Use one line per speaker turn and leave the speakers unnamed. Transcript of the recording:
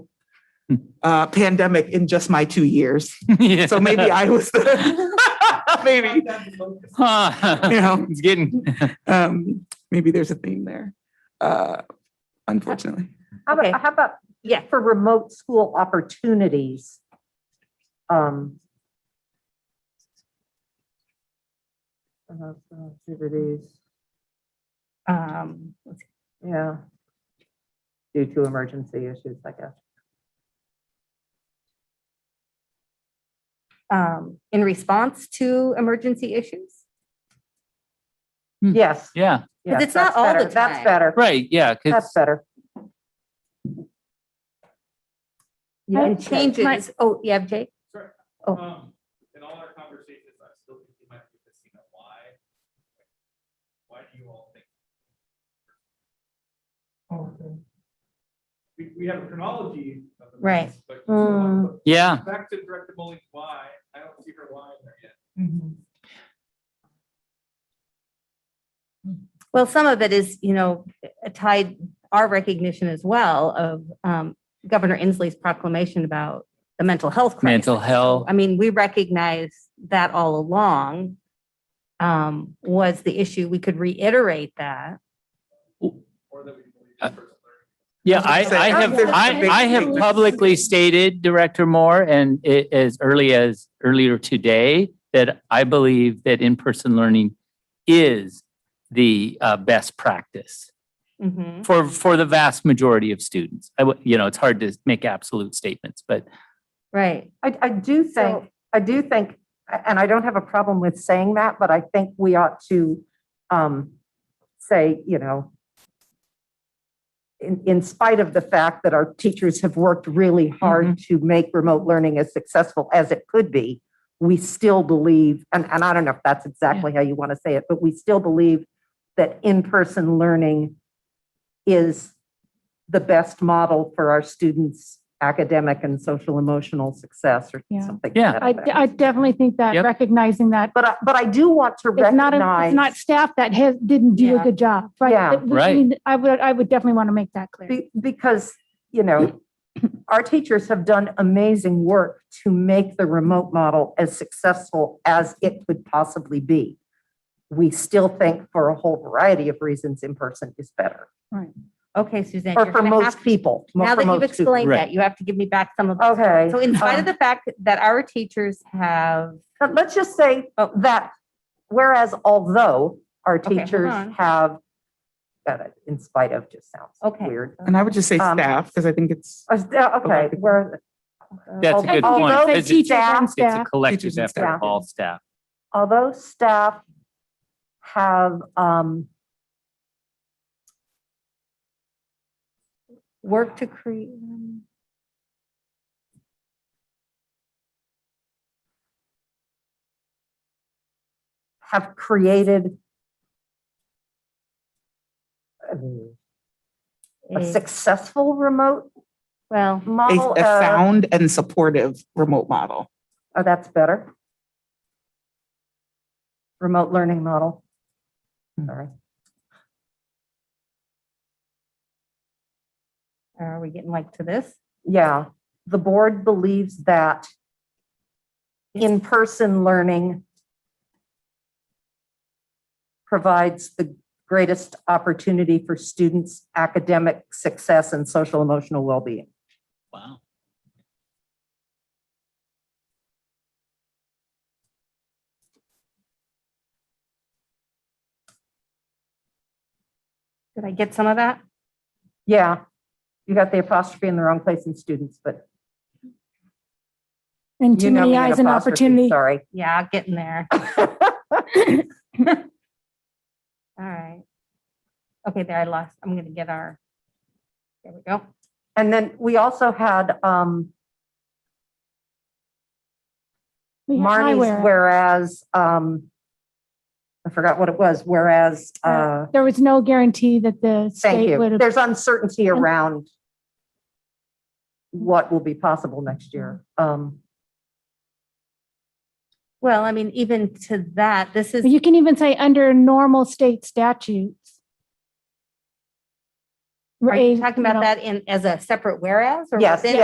uh, pandemic in just my two years.
Yeah.
So maybe I was, maybe,
Huh.
you know,
It's getting,
um, maybe there's a theme there, uh, unfortunately.
How
Okay.
about, how about, yeah, for remote school opportunities? Um. uh, Activities,
Um, let's see.
yeah. Due to emergency issues, I guess.
um, in response to emergency issues?
Yes.
yeah,
yes,
it's not
that's
all the
better, That's
time.
better.
right, yeah,
That's
because,
better.
Yeah, and
Okay.
changes, oh, yeah, Jake? Oh.
Um, in all our conversations, I still think you might be missing a why. Why do you all think? We, we have a chronology of the.
Right.
movies, But you still have to-
yeah,
back to Director Mullings' why, I don't see her why in there yet.
Mm-hmm.
Well, some of it is, you know, tied our recognition as well of um, Governor Inslee's proclamation about the mental health crisis.
mental health.
I mean, we recognize that all along um, was the issue. We could reiterate that.
Or that we believe
Uh,
in personal learning.
Yeah,
I
I,
was gonna
I
say,
have,
there's a
I,
big
I have
difference.
publicly stated, Director Moore, and it, as early as earlier today, that I believe that in-person learning is the uh, best practice
Mhm.
for, for the vast majority of students. I, would- you know, it's hard to make absolute statements, but
Right.
I, I do
So-
think, I do think, and I don't have a problem with saying that, but I think we ought to um, say, you know, in, in spite of the fact that our teachers have worked really hard to make remote learning as successful as it could be, we still believe, and, and I don't know if that's exactly how you want to say it, but we still believe that in-person learning is the best model for our students' academic and social emotional success or
Yeah.
something. to
Yeah.
that
I,
effect.
I definitely think that
Yep.
recognizing that
But I, but I do want to
it's not, a-
recognize.
it's not staff that has, didn't do
Yeah.
a good job, right?
Yeah.
But- but I
Right.
mean, I would, I would definitely want to make that clear.
Be- Because, you know, our teachers have done amazing work to make the remote model as successful as it could possibly be. We still think for a whole variety of reasons, in-person is better,
Okay, Suzanne.
or
you're
for
gonna have
most
to-
people. mo-
Now
for
that you've
most students.
explained
Right.
that, you have to give me back some of. those.
Okay.
So in spite of
um,
the fact that our teachers have,
But let's just say that whereas although our
Oh. Okay, hold
teachers
on.
have, got it, in spite of just sounds
Okay.
weird.
And I would just say
Um,
staff, because I think it's.
Uh, Okay, where.
that's a good point.
Although
because It's
teachers and
staff-
it's a
staff-
collective
Teachers and
effort
staff.
of all staff.
although staff have, um,
work to create.
have created um, a
a-
successful remote
Well,
a,
model.
a
uh,
sound and supportive remote model.
Oh, that's better. Remote learning model.
Hmm.
Sorry.
uh, are we getting like to this?
Yeah, the board believes that in-person learning provides the greatest opportunity for students' academic success and social emotional well-being.
Wow.
Did I get some of that?
Yeah, you got the apostrophe in the wrong place in students, but
And
you
too
know me
many
and
eyes and
apostrophe,
opportunity.
Sorry.
Yeah, I'll get in there. All right. Okay, there I lost. I'm gonna get our. There we go.
And then we also had, um,
We have
Marnie's
eyewear.
whereas, um, I forgot what it was, whereas, uh,
There was no guarantee that the
Thank
state
you.
would,
There's uncertainty around what will be possible next year. Um,
Well, I mean, even to that, this is,
you can even say under normal state statutes.
are you
Raise-
talking about
know,
that in, as a separate whereas? or
Yes,
within-